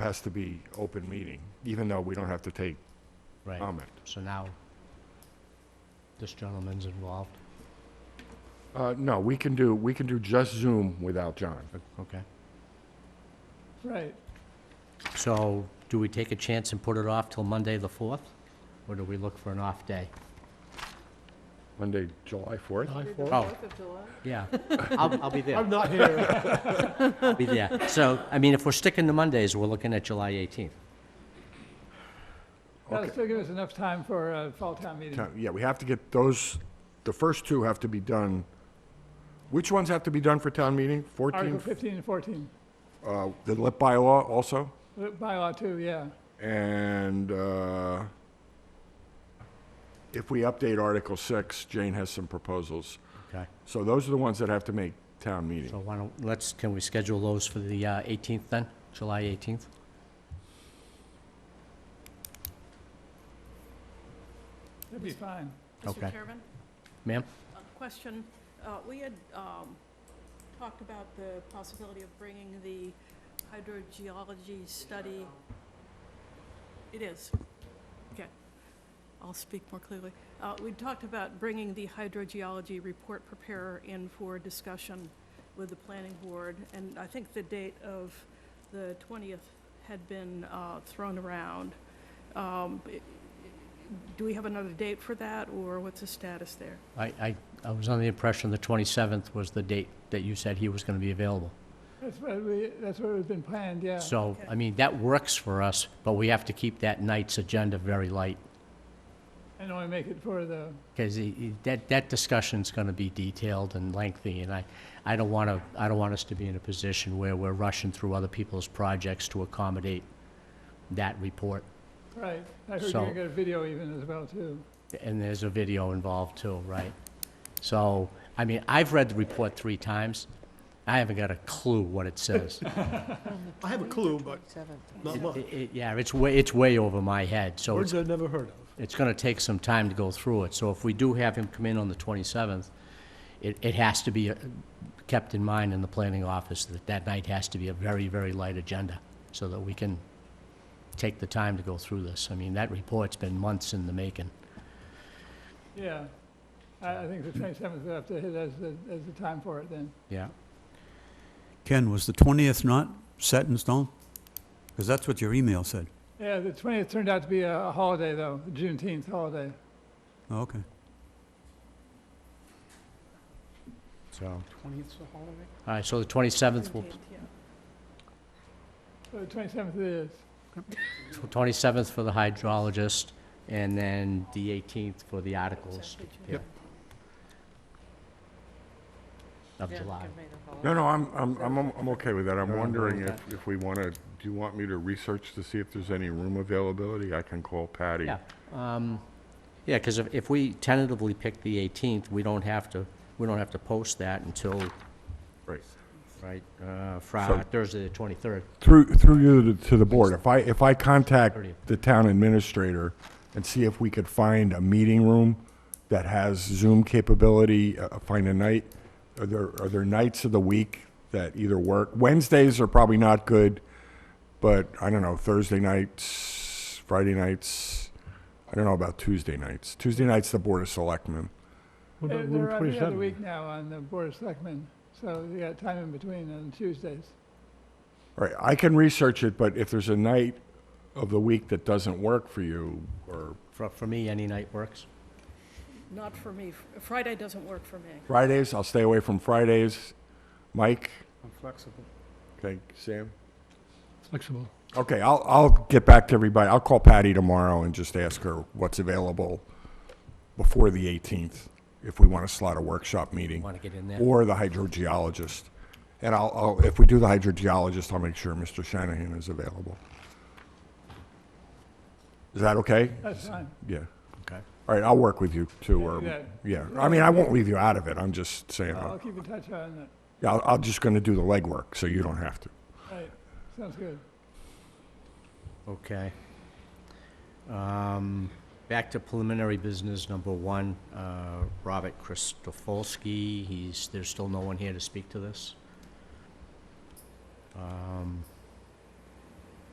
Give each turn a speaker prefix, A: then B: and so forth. A: has to be open meeting, even though we don't have to take
B: Right,
A: comment.
B: so now this gentleman's involved,
A: Uh, no, we can do, we can do just Zoom without John.
B: okay?
C: Right.
B: So do we take a chance and put it off till Monday, the 4th? Or do we look for an off day?
A: Monday, July 4th?
C: July
D: The
C: fourth.
B: Oh.
D: 4th of July?
B: Yeah, I'll, I'll be there,
C: I'm not here.
B: I'll be there. So, I mean, if we're sticking to Mondays, we're looking at July 18th.
C: That'll still give us enough time for a fall town meeting.
A: No, Yeah, we have to get those, the first two have to be done. Which ones have to be done for town meeting? 14,
C: Article 15 and 14,
A: uh, the LIP bylaw also,
C: Uh, bylaw two, yeah.
A: and, uh, if we update Article 6, Jane has some proposals.
B: Okay.
A: So those are the ones that have to make town
B: So
A: meeting.
B: why don't, let's, can we schedule those for the uh, 18th then, July 18th?
C: That'd be fine.
B: Okay.
D: Mr. Chairman,
B: Ma'am?
D: a question. Uh, We had um, talked about the possibility of bringing the hydrogeology study. It is. Okay. I'll speak more clearly. Uh, We talked about bringing the hydrogeology report preparer in for discussion with the planning board, and I think the date of the 20th had been uh, thrown around. Um, i- Do we have another date for that, or what's the status there?
B: I, I, I was under the impression the 27th was the date that you said he was going to be available.
C: That's what we, that's what has been planned, yeah.
B: So,
D: Okay.
B: I mean, that works for us, but we have to keep that night's agenda very light,
C: And only make it for the,
B: because that, that discussion's going to be detailed and lengthy, and I, I don't want to, I don't want us to be in a position where we're rushing through other people's projects to accommodate that report.
C: right. I heard you
B: So-
C: were gonna get a video even as well, too.
B: And there's a video involved too, right? So, I mean, I've read the report three times. I haven't got a clue what it says.
E: I have a clue, but not much.
B: It- it- Yeah, it's way, it's way over my head, so it's
E: Words I've never heard of.
B: it's going to take some time to go through it. So if we do have him come in on the 27th, it, it has to be uh, kept in mind in the planning office that that night has to be a very, very light agenda so that we can take the time to go through this. I mean, that report's been months in the making.
C: Yeah. I, I think the 27th we'll have to hit as the, as the time for it then.
B: Yeah.
F: Ken, was the 20th not set in stone? Because that's what your email said.
C: Yeah, the 20th turned out to be a a holiday, though, a Juneteenth holiday.
F: Oh, okay.
B: So,
E: Twentieth of holiday?
B: all right, so the 27th, will-
D: 17th, yeah.
C: So the 27th it is.
B: 27th for the hydrologist and then the 18th for the articles
D: Exactly, June.
B: Yep. of July.
A: No, no, I'm, I'm, I'm, I'm okay with that. I'm
B: You're on board
A: wondering
B: with
A: if, if we want to, do you want me to research to see if there's any room availability? I can call Patty.
B: Yeah, um, yeah, because if, if we tentatively pick the 18th, we don't have to, we don't have to post that until,
A: Right.
B: right, uh, Friday, Thursday, the 23rd.
A: Through, through you to the board, if I, if I contact
B: Thirtieth.
A: the town administrator and see if we could find a meeting room that has Zoom capability, uh, find a night, are there, are there nights of the week that either work? Wednesdays are probably not good, but I don't know, Thursday nights, Friday nights, I don't know about Tuesday nights. Tuesday night's the Board of Selectmen.
E: What
C: They're
E: about
C: they're
E: room
C: every other
E: twenty-seven?
C: week now on the Board of Selectmen, so you got time in between on Tuesdays.
A: All right, I can research it, but if there's a night of the week that doesn't work for you, or
B: For, for me, any night works.
D: Not for me. F- Friday doesn't work for me.
A: Fridays, I'll stay away from Fridays. Mike?
E: I'm flexible.
A: Okay, Sam?
E: Flexible.
A: Okay, I'll, I'll get back to everybody. I'll call Patty tomorrow and just ask her what's available before the 18th, if we want to slot a workshop meeting,
B: Want to get in there?
A: or the hydrogeologist. And I'll, I'll, if we do the hydrogeologist, I'll make sure Mr. Shanahan is available. Is that okay?
C: That's fine.
A: Yeah.
B: Okay.
A: All right, I'll work with you too, or,
C: Yeah.
A: yeah. I mean, I won't leave you out of it. I'm just saying,
C: I'll
A: I'll-
C: keep in touch on that.
A: yeah, I'll- I'm just going to do the legwork, so you don't have to.
C: Right, sounds good.
B: Okay. Um, Back to preliminary business, number one, uh, Robert Christofolsky, he's, there's still no one here to speak to this. Um,